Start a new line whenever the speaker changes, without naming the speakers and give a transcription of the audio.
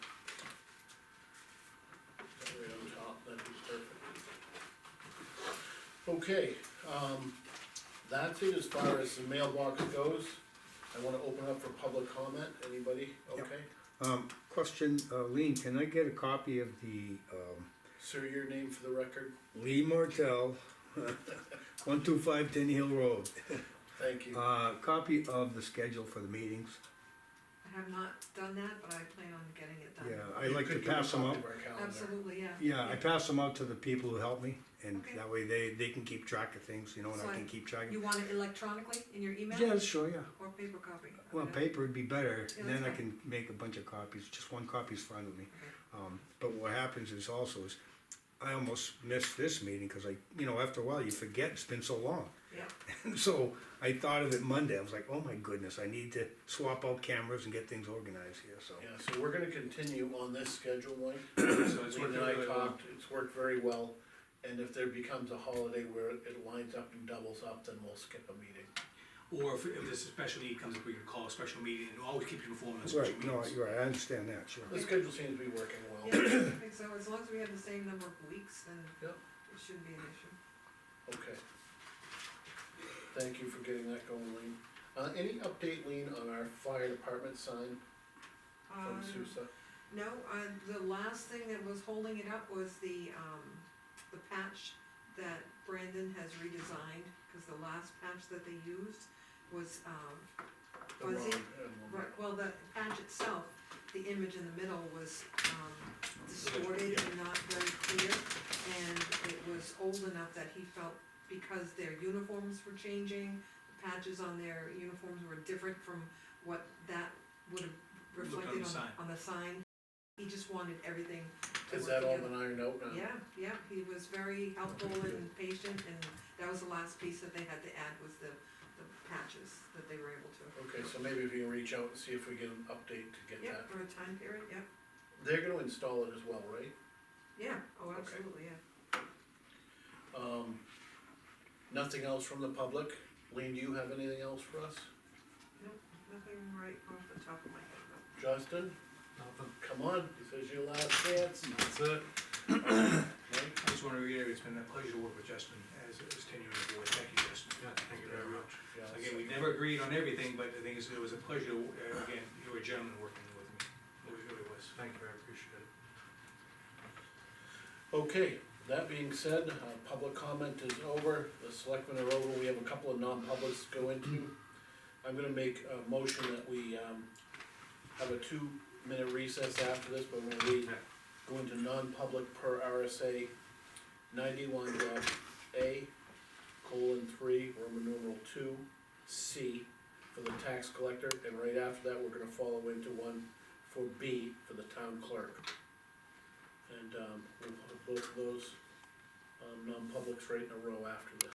Okay, um, that's it as far as the mailbox goes. I wanna open up for public comment, anybody,
Yep.
okay?
Um, question, uh, Lean, can I get a copy of the, um,
Sir, your name for the record,
Lee Martell, one two five Tenny Hill Road,
thank you.
uh, copy of the schedule for the meetings?
I have not done that, but I plan on getting it done.
Yeah, I like to pass them out.
Oh,
Absolutely, yeah.
Yeah, I pass them out to the people who help me, and
Okay.
that way they, they can keep track of things, you know, and
So
I
I-
can keep track of.
You want it electronically in your email?
Yeah, sure, yeah.
Or paper copy? I
Well,
mean,
paper would be better,
Yeah,
then I
that's
can make a bunch of copies, just one copy's fine with me.
okay.
Um, but what happens is also is, I almost missed this meeting, cause I, you know, after a while, you forget, it's been so long.
Yeah,
And so I thought of it Monday, I was like, oh my goodness, I need to swap out cameras and get things organized here, so.
Yeah, so we're gonna continue on this schedule, Mike.
So it's
Lee and
working
I
really well.
talked, it's worked very well, and if there becomes a holiday where it lines up and doubles up, then we'll skip a meeting.
uh, Or if, if this special need comes up, we can call a special meeting and always keep you informed on special
Right, no,
meetings.
you're right, I understand that, sure.
The schedule seems to be working
yeah,
well,
I think so, as long as we have the same number of weeks, then
Yep.
it shouldn't be an issue.
okay. Thank you for getting that going, Lean. Uh, any update, Lean, on our fire department sign from
Um,
Sousa?
No, uh, the last thing that was holding it up was the, um, the patch that Brandon has redesigned, cause the last patch that they used was, um,
The
was
wrong
it-
emblem.
Right, well, the patch itself, the image in the middle was um, distorted
Yeah.
and not very clear. And it was old enough that he felt because their uniforms were changing, the patches on their uniforms were different from what that would have
Looked on
reflected on,
the sign.
on the sign. He just wanted everything to
Has
work
that all
together.
been ironed out now?
Yeah, yeah, he was very helpful and patient, and that was the last piece that they had to add was the, the patches that they were able to.
Okay, so maybe if you can reach out and see if we get an update to get
Yeah,
that.
for a time period, yeah.
They're gonna install it as well, right?
Yeah, oh,
Okay.
absolutely, yeah.
Um, nothing else from the public? Lean, do you have anything else for us?
Nothing right off the top of my head, no.
Justin,
Nothing.
come on, this is your last chance.
That's it.
Mike,
I just wanna reiterate, it's been a pleasure to work with Justin as, as tenured board. Thank you, Justin.
Yeah, thank you very much.
yes.
Again, we never agreed on everything, but the thing is, it was a pleasure, to uh, again, you were a gentleman working with me. It really- really was.
Thank you, I appreciate it.
Okay, that being said, uh, public comment is over, the selectmen are over, we have a couple of non-publics to go into. I'm gonna make a motion that we, um, have a two-minute recess after this, but we're gonna leave, go into non-public per RSA ninety-one dot A, colon three, Roman numeral two, C, for the tax collector, and right after that, we're gonna follow into one for B, for the town clerk. And, um, we'll put both of those, um, non-publics right in a row after this.